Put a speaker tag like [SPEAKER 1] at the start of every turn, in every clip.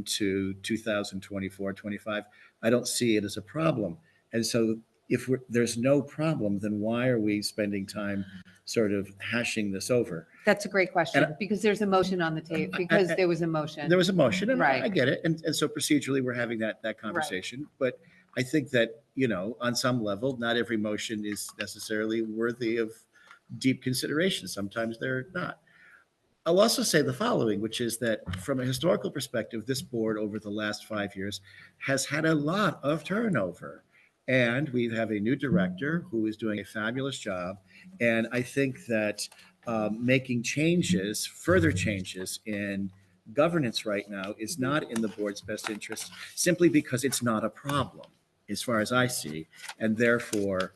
[SPEAKER 1] into 2024, 25, I don't see it as a problem. And so if we're, there's no problem, then why are we spending time sort of hashing this over?
[SPEAKER 2] That's a great question, because there's a motion on the table, because there was a motion.
[SPEAKER 1] There was a motion, and I- I
[SPEAKER 2] Right.
[SPEAKER 1] get it, and, and so procedurally, we're having that, that conversation. But I think that, you know, on some level, not every motion is necessarily worthy of deep consideration. Sometimes they're not. I'll also say the following, which is that from a historical perspective, this board over the last five years has had a lot of turnover. And we have a new director who is doing a fabulous job. And I think that um, making changes, further changes in governance right now is not in the board's best interest simply because it's not a problem, as far as I see. And therefore,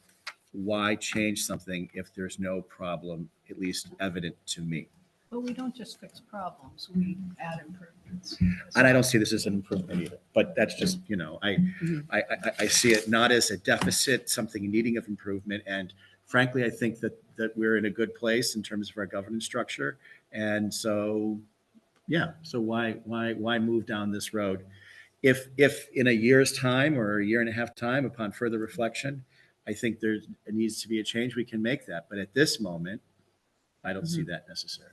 [SPEAKER 1] why change something if there's no problem, at least evident to me?
[SPEAKER 3] But we don't just fix problems, we add improvements.
[SPEAKER 1] And I don't see this as an improvement either, but that's just, you know, I,
[SPEAKER 3] Mm-hmm.
[SPEAKER 2] Mhm.
[SPEAKER 1] I, I, I see it not as a deficit, something needing of improvement. And frankly, I think that, that we're in a good place in terms of our governance structure. And so, yeah, so why, why, why move down this road? If, if in a year's time or a year and a half time upon further reflection, I think there's, it needs to be a change, we can make that. But at this moment, I don't
[SPEAKER 3] Mm-hmm.
[SPEAKER 1] see that necessary.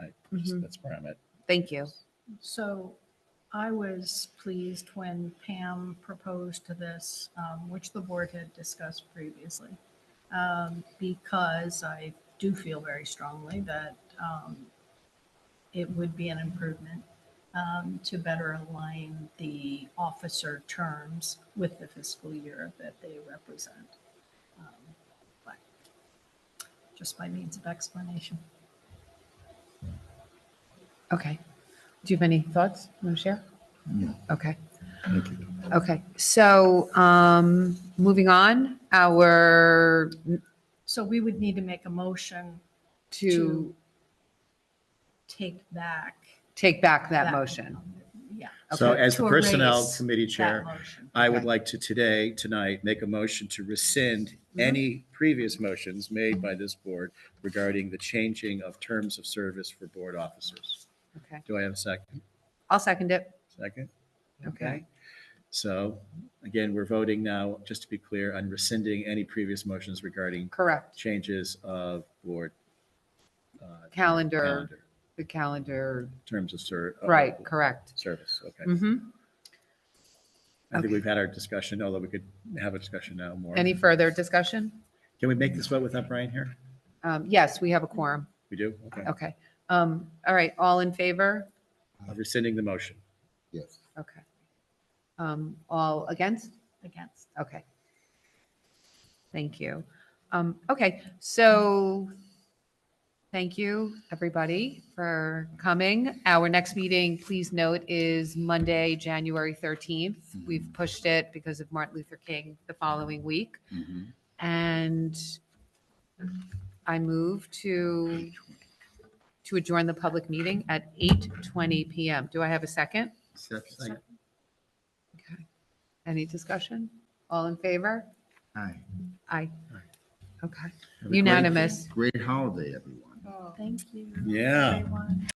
[SPEAKER 1] I,
[SPEAKER 2] Mhm.
[SPEAKER 1] that's where I'm at.
[SPEAKER 2] Thank you.
[SPEAKER 3] So I was pleased when Pam proposed to this, um, which the board had discussed previously, um, because I do feel very strongly that um, it would be an improvement um, to better align the officer terms with the fiscal year that they represent. Um, but Just by means of explanation.
[SPEAKER 2] Okay. Do you have any thoughts? Want to share?
[SPEAKER 4] No.
[SPEAKER 2] Okay,
[SPEAKER 4] Thank you.
[SPEAKER 2] okay. So um moving on, our
[SPEAKER 3] So we would need to make a motion
[SPEAKER 2] to
[SPEAKER 3] to take back.
[SPEAKER 2] take back that
[SPEAKER 3] that-
[SPEAKER 2] motion.
[SPEAKER 3] Yeah.
[SPEAKER 1] So
[SPEAKER 2] Okay.
[SPEAKER 1] as the
[SPEAKER 3] To
[SPEAKER 1] Personnel
[SPEAKER 3] erase
[SPEAKER 1] Committee
[SPEAKER 3] That
[SPEAKER 1] Chair,
[SPEAKER 3] motion.
[SPEAKER 1] I would
[SPEAKER 2] Okay.
[SPEAKER 1] like to today, tonight, make a motion to rescind
[SPEAKER 2] Mm-hmm.
[SPEAKER 1] any previous motions made by this board regarding the changing of terms of service for board officers.
[SPEAKER 2] Okay,
[SPEAKER 1] Do I have a second?
[SPEAKER 2] I'll second it.
[SPEAKER 1] Second?
[SPEAKER 2] Okay.
[SPEAKER 1] So again, we're voting now, just to be clear, on rescinding any previous motions regarding
[SPEAKER 2] Correct.
[SPEAKER 1] changes of board. uh,
[SPEAKER 2] Calendar, Oh. the calendar,
[SPEAKER 1] Terms of ser. of
[SPEAKER 2] right, correct.
[SPEAKER 1] Service, okay.
[SPEAKER 2] hmm
[SPEAKER 1] I think
[SPEAKER 2] Okay.
[SPEAKER 1] we've had our discussion, although we could have a discussion now more.
[SPEAKER 2] Any further discussion?
[SPEAKER 1] Can we make this vote without Brian here?
[SPEAKER 2] Um, Yes, we have a quorum.
[SPEAKER 1] We do? Okay.
[SPEAKER 2] Okay. Um, All right, all in favor?
[SPEAKER 1] Of Rescinding the motion.
[SPEAKER 4] Yes.
[SPEAKER 2] Okay. Um, All against?
[SPEAKER 3] Against.
[SPEAKER 2] Okay. Thank you. Um, okay, so thank you, everybody, for coming. Our next meeting, please note, is Monday, January 13th. We've pushed it because of Martin Luther King the following week. And I move to, to adjourn the public meeting at 8:20 PM. Do I have a second?
[SPEAKER 1] Second.
[SPEAKER 2] Okay. Any discussion? All in favor?
[SPEAKER 4] Hi.
[SPEAKER 2] Aye. Okay.
[SPEAKER 4] Have a great-
[SPEAKER 2] Unanimous.
[SPEAKER 4] Great holiday, everyone.
[SPEAKER 3] Thank you.
[SPEAKER 1] Yeah.
[SPEAKER 3] everyone.